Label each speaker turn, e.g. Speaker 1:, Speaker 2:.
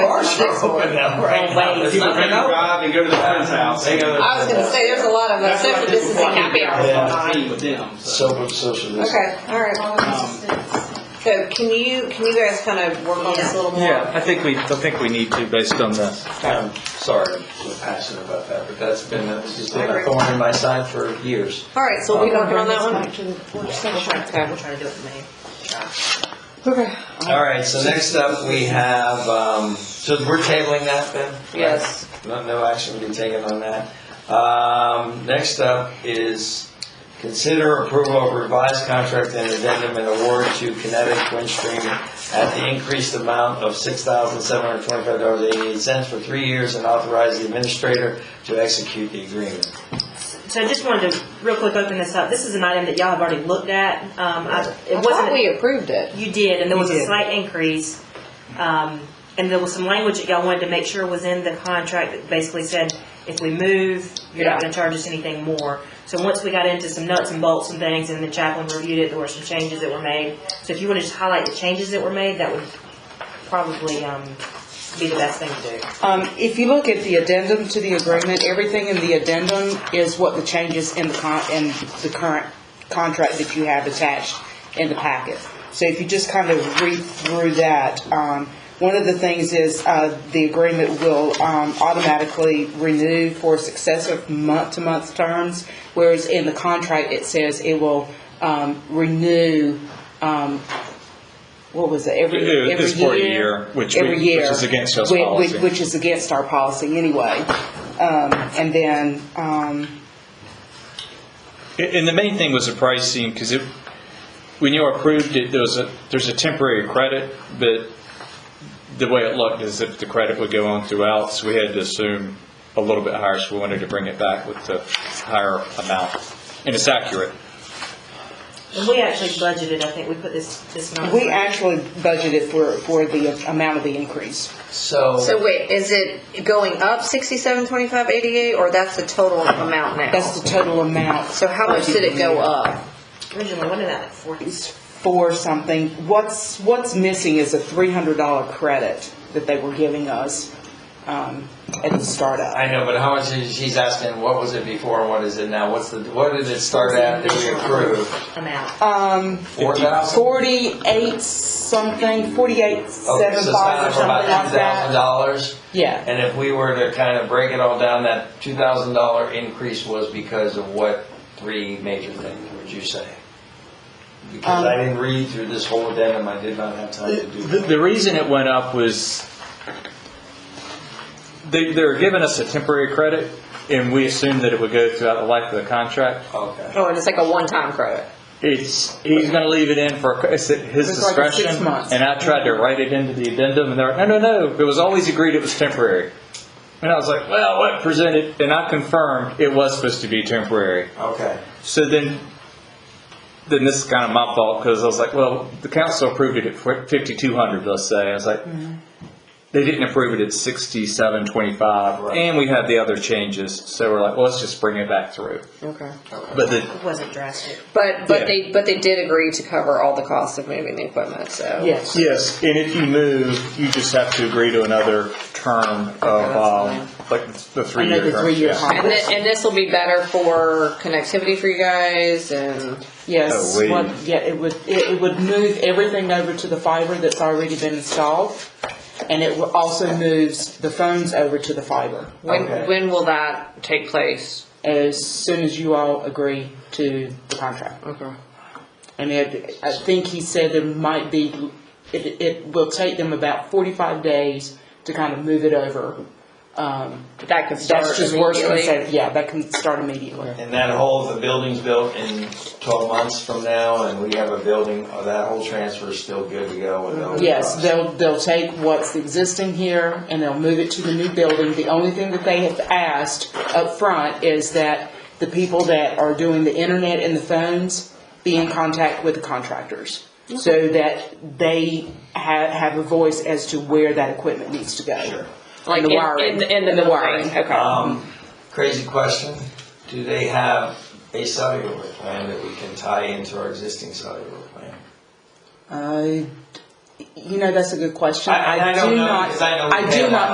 Speaker 1: are open now, right? now. There's
Speaker 2: People
Speaker 1: nothing
Speaker 2: can
Speaker 1: open.
Speaker 2: drive and go to the friend's house. Hang out.
Speaker 3: I was gonna say, there's a lot of uh,
Speaker 2: That's why
Speaker 3: social
Speaker 2: people
Speaker 3: distancing
Speaker 2: find
Speaker 3: happy
Speaker 2: it
Speaker 3: hours
Speaker 2: hard to
Speaker 3: going on.
Speaker 2: be with them, so.
Speaker 1: So much social distancing.
Speaker 3: Okay, all right. So can you, can you guys kind of work on this a little more?
Speaker 4: Yeah, I think we, I think we need to based on the,
Speaker 1: I'm sorry, I'm so passionate about that, but that's been, that's just been a
Speaker 3: Alright.
Speaker 1: thorn in my side for years.
Speaker 3: All right, so we working on that one?
Speaker 5: Back to the work
Speaker 3: We'll
Speaker 5: session.
Speaker 3: try- Okay, we'll try to do it in May. Okay.
Speaker 1: All right, so next up, we have, um, so we're tabling that then?
Speaker 3: Yes.
Speaker 1: No, no action will be taken on that. Um, next up is consider approval of revised contract and addendum and award to Kinetic Windstream at the increased amount of six thousand seven hundred twenty-five dollars eighty-eight cents for three years and authorize the administrator to execute the agreement.
Speaker 6: So I just wanted to real quick open this up. This is an item that y'all have already looked at. Um, I, it
Speaker 3: I thought
Speaker 6: wasn't.
Speaker 3: we approved it.
Speaker 6: you did, and there was
Speaker 3: You
Speaker 6: a
Speaker 3: did.
Speaker 6: slight increase. Um, and there was some language that y'all wanted to make sure was in the contract that basically said, if we move, you're not gonna charge us anything more. So once we got into some nuts and bolts and things, and the chaplain reviewed it, there were some changes that were made. So if you wanna just highlight the changes that were made, that would probably, um, be the best thing to do.
Speaker 7: Um, if you look at the addendum to the agreement, everything in the addendum is what the changes in the con, in the current contract that you have attached in the packet. So if you just kind of read through that, um, one of the things is, uh, the agreement will, um, automatically renew for successive month-to-month terms, whereas in the contract, it says it will, um, renew, um, what was it, every, every year?
Speaker 4: It is for a year, which we-
Speaker 7: Every
Speaker 4: which
Speaker 7: year.
Speaker 4: is against us
Speaker 7: Whi- whi-
Speaker 4: policy.
Speaker 7: Which is against our policy anyway. Um, and then, um,
Speaker 4: and the main thing was the pricing, because it, when you approved it, there was a, there's a temporary credit, but the way it looked is if the credit would go on throughout, so we had to assume a little bit higher, so we wanted to bring it back with the higher amount. And it's accurate.
Speaker 6: And we actually budgeted, I think, we put this, this number.
Speaker 7: we actually budgeted for, for the amount of the increase.
Speaker 3: So wait, is it going up sixty-seven, twenty-five, eighty-eight, or that's the total amount now?
Speaker 7: That's the total amount.
Speaker 3: So how much did it go up?
Speaker 6: Originally, what did that, forty?
Speaker 7: It's For something, what's, what's missing is a three hundred dollar credit that they were giving us, um, at the startup.
Speaker 1: I know, but how much is, she's asking, what was it before and what is it now? What's the, what did it start at that we approved?
Speaker 6: amount.
Speaker 7: Um,
Speaker 1: Four thousand?
Speaker 7: forty-eight something, forty-eight,
Speaker 1: Okay, so
Speaker 7: seven
Speaker 1: it's
Speaker 7: five
Speaker 1: down
Speaker 7: or
Speaker 1: for
Speaker 7: something
Speaker 1: about
Speaker 7: like
Speaker 1: two thousand
Speaker 7: that.
Speaker 1: dollars?
Speaker 7: Yeah.
Speaker 1: And if we were to kind of break it all down, that two thousand dollar increase was because of what three major things, would you say? Because I didn't read through this whole addendum, I did not have time to do
Speaker 4: The,
Speaker 1: that.
Speaker 4: the reason it went up was they, they were giving us a temporary credit, and we assumed that it would go throughout the life of the contract.
Speaker 1: Okay.
Speaker 3: Oh, and it's like a one-time credit.
Speaker 4: It's, he's gonna leave it in for, it's at his
Speaker 7: It's like a six
Speaker 4: discretion.
Speaker 7: months.
Speaker 4: And I tried to write it into the addendum, and they're like, no, no, no, it was always agreed it was temporary. And I was like, well, what presented, and I confirmed it was supposed to be temporary.
Speaker 1: Okay.
Speaker 4: So then, then this is kind of my fault because I was like, well, the council approved it at fifty-two hundred, let's say. I was like,
Speaker 7: Mm-hmm.
Speaker 4: they didn't approve it at sixty-seven twenty-five,
Speaker 1: Right.
Speaker 4: and we had the other changes. So we're like, well, let's just bring it back through.
Speaker 3: Okay.
Speaker 4: But the,
Speaker 6: It wasn't drastic.
Speaker 3: But,
Speaker 4: Yeah.
Speaker 3: but they, but they did agree to cover all the costs of moving the equipment, so.
Speaker 7: Yes.
Speaker 4: yes, and if you move, you just have to agree to another term of um, like the three-year
Speaker 7: Another
Speaker 4: term,
Speaker 7: three-year
Speaker 4: yeah.
Speaker 7: term.
Speaker 3: And thi- and this will be better for connectivity for you guys and,
Speaker 7: Yes,
Speaker 4: Oh, wait.
Speaker 7: what, yeah, it would, it it would move everything over to the fiber that's already been installed, and it will- also moves the phones over to the fiber,
Speaker 3: when,
Speaker 1: Okay.
Speaker 3: when will that take place?
Speaker 7: as soon as you all agree to the contract.
Speaker 3: Okay.
Speaker 7: And it, I think he said there might be, it, it will take them about forty-five days to kind of move it over. Um,
Speaker 3: That could start
Speaker 7: that's just worse than
Speaker 3: immediately.
Speaker 7: saying, yeah, that can start immediately.
Speaker 1: And that whole, the building's built in twelve months from now, and we have a building, oh, that whole transfer is still good to go with all the
Speaker 7: Yes,
Speaker 1: costs.
Speaker 7: they'll, they'll take what's existing here and they'll move it to the new building. The only thing that they have asked up front is that the people that are doing the internet and the phones be in contact with the contractors so that they have, have a voice as to where that equipment needs to go.
Speaker 1: Sure.
Speaker 7: Like
Speaker 3: in- in- in the
Speaker 7: And the wiring,
Speaker 3: building.
Speaker 7: okay.
Speaker 1: Um, crazy question, do they have a cellular plan that we can tie into our existing cellular plan?
Speaker 7: Uh, you know, that's a good question.
Speaker 1: I- I don't
Speaker 7: do
Speaker 1: know,
Speaker 7: not-
Speaker 1: because I know we
Speaker 7: I
Speaker 1: pay a lot.
Speaker 7: do not